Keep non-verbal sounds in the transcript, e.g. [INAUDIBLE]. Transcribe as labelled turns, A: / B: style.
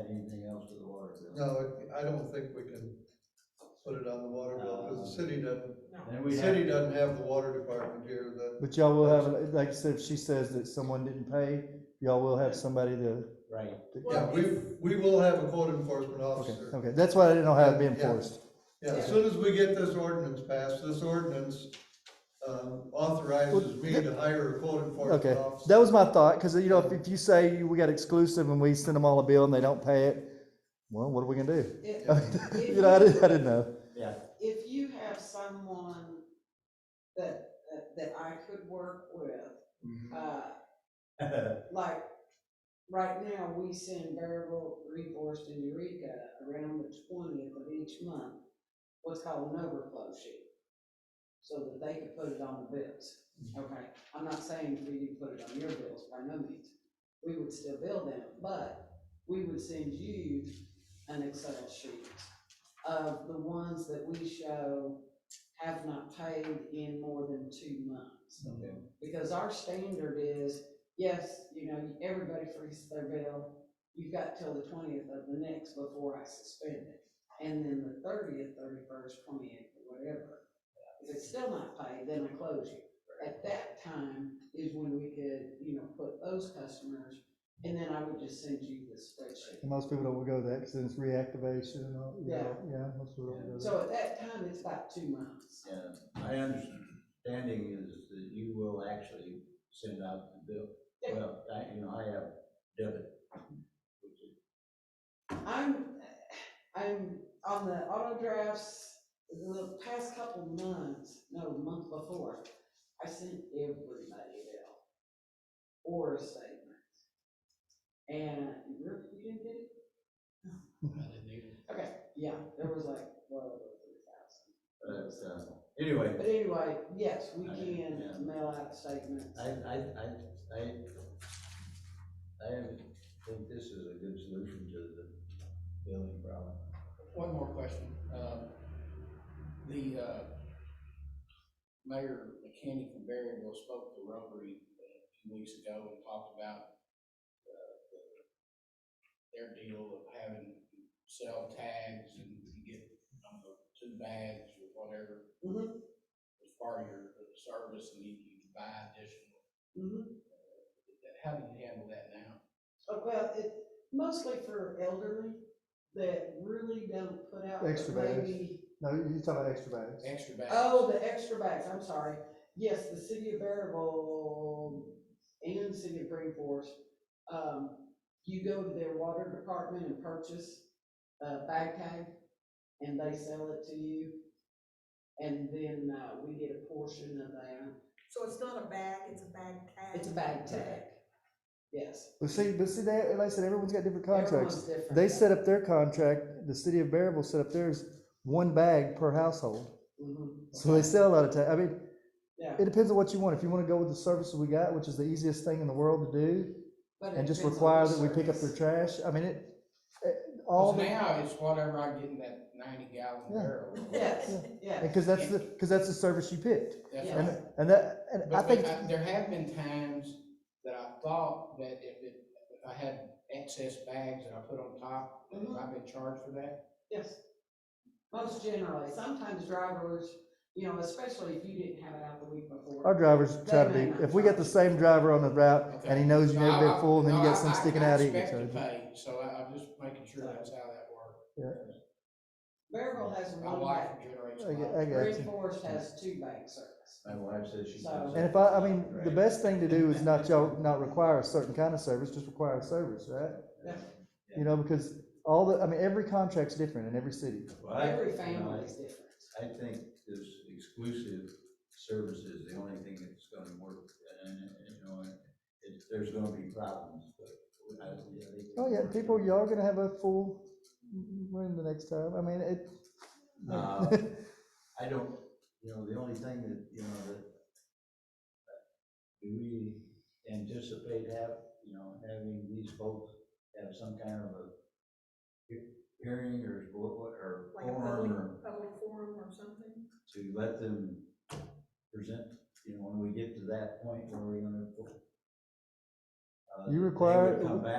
A: onto the water bill.
B: No, I don't think we can put it on the water bill, because the city doesn't,
A: Then
B: the
A: we
B: city
A: have,
B: doesn't have the water department here that,
C: But y'all will have, like I said, if she says that someone didn't pay, y'all will have somebody to,
A: right,
B: yeah,
D: Well,
B: we,
D: if-
B: we will have a code enforcement
C: okay,
B: officer.
C: okay, that's why I didn't know how it'd be
B: Yeah.
C: enforced.
B: Yeah, as soon as we get this ordinance passed, this ordinance, um, authorizes me to hire a code
C: Okay,
B: enforcement officer.
C: that was my thought, cause you know, if, if you say we got exclusive and we send them all a bill and they don't pay it, well, what are we gonna do?
D: If,
C: [LAUGHS] You know, I didn't, I didn't know.
A: yeah,
D: if you have someone that, that- that I could work with,
B: Mm-hmm.
D: uh, like, right now, we send Bearable, Reforest, and Eureka around the twentieth of each month, what's called an overflow sheet, so that they can put it on the bills, okay? I'm not saying for you to put it on your bills, by no means, we would still bill them, but we would send you an Excel sheet of the ones that we show have not paid in more than two months.
A: Okay.
D: Because our standard is, yes, you know, everybody freezes their bill, you've got till the twentieth of the next before I suspend it. And then the thirtieth, thirty-first, twentieth, or whatever. If it's still not paid, then I close you. At that time is when we could, you know, put those customers, and then I would just send you the spreadsheet.
C: And most people don't go that, cause then it's reactivation and all,
D: you know, Yeah.
C: yeah, most people
A: don't
C: don't go
D: So at that time, it's about two months.
A: And my understanding is that you will actually send out the bill.
D: Yeah.
A: Well, I, you know, I have debit, which is
D: I'm, I'm on the auto drafts, the past couple months, no, the month before, I sent everybody a bill or a statement. And you you didn't get it? Okay, yeah, there was like, well, over three
A: But,
D: thousand.
A: uh, anyway,
D: But anyway, yes, we
A: I- yeah.
D: can mail out statements.
A: I, I, I, I, I think this is a good solution to the building problem.
E: One more question. Um, The uh, mayor McKinney from Berryville spoke to Rotary uh, a few weeks ago and talked about uh, the- their deal of having cell tags and you get, I don't know, two bags or whatever
C: Mm-hmm.
D: Mhm.
E: as part of your uh, service and you you buy additional.
D: Mhm.
E: How do you handle that now?
D: Oh, Well, it, mostly for elderly that really don't put out. but
C: Extra bags.
D: maybe-
C: No, you talk about extra bags.
E: Extra bags.
D: Oh, the extra bags, I'm sorry. Yes, the city of Bearable and city of Green Forest, um, you go to their water department and purchase a bag tag, and they sell it to you. And then, uh, we get a portion of that.
F: So it's not a bag, it's a bag tag?
D: It's a bag tag, yes.
C: But see, but see, they, like I said, everyone's got different contracts.
D: Everyone's different.
C: They set up their contract, the city of Bearable set up theirs, one bag per household.
D: Mhm,
C: So they sell a lot of time. I mean,
D: Yeah.
C: it depends on what you want. If you wanna go with the services we got, which is the easiest thing in the world to do,
D: But it
C: and just
D: depends on
C: require
D: the
C: that we pick up
D: service.
C: their trash, I mean, it, it- all,
E: Because
C: the-
E: now it's whatever I get in that ninety gallon
C: Yeah.
E: barrel.
D: Yes, yes.
C: and cause that's the, cause that's the service you picked.
E: That's
D: Yeah.
E: right.
C: And, and that, and I
E: But
C: think,
E: I- there have been times that I thought that if it, if I had excess bags that I put on top, that
C: Mm-hmm.
D: Mhm.
E: I've been charged for that.
D: Yes. Most generally, sometimes drivers, you know, especially if you didn't have it out the week
C: our
D: before.
C: drivers try to
D: They may
C: be,
D: not
C: if we got the same driver on the route and he knows you
E: No,
C: never
E: I-
C: been full, and then you
E: no, I-
C: got some
E: I-
C: sticking
E: I
C: out eating.
E: expect
C: so-
E: to pay, So I, I'm just making sure that's how that works.
D: Bearville has
E: My
D: one
E: wife
D: bank,
E: generates.
C: I get-
E: mine.
C: I get-
D: Green
C: Gotcha.
D: Forest has two bank service.
A: My wife says she.
D: So-
A: does
C: And
A: it.
C: if I, I mean, the
A: Right.
C: best thing to do is not y'all, not require a certain kind of service, just require a service, right?
D: Yeah.
C: You know, because all the, I mean, every contract's different in every city.
A: Well, I-
D: Every
A: you know,
D: family
A: I-
D: is different.
A: I think this exclusive service is the only thing that's gonna work, and, you know, and it, there's gonna be problems, but I, I think.
C: Oh, yeah, people, y'all gonna have a full mm, room the next time. I mean, it,
A: Uh, I don't, you know, the only thing that, you know, that, do we anticipate have, you know, having these folks have some kind of a he- hearing or, or- or
F: Like a
A: forum or
F: public, public forum or something?
A: to let them present, you know, when we get to that point where we're gonna. uh, they
C: You
A: would
C: require-
A: Come back